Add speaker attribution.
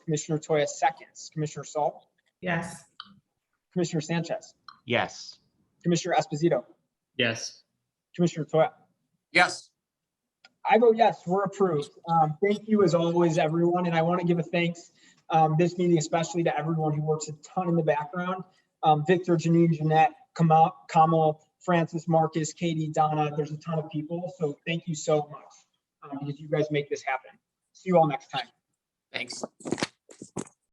Speaker 1: Commissioner Toya seconds, Commissioner Saul,
Speaker 2: Yes.
Speaker 1: Commissioner Sanchez,
Speaker 3: Yes.
Speaker 1: Commissioner Esposito,
Speaker 4: Yes.
Speaker 1: Commissioner Toya.
Speaker 5: Yes.
Speaker 1: I vote yes, we're approved. Um, thank you as always, everyone, and I want to give a thanks um, this meeting especially to everyone who works a ton in the background. Um, Victor, Janine, Jeanette, Kamal, Kamal, Francis, Marcus, Katie, Donna, there's a ton of people, so thank you so much um, because you guys make this happen. See you all next time.
Speaker 5: Thanks.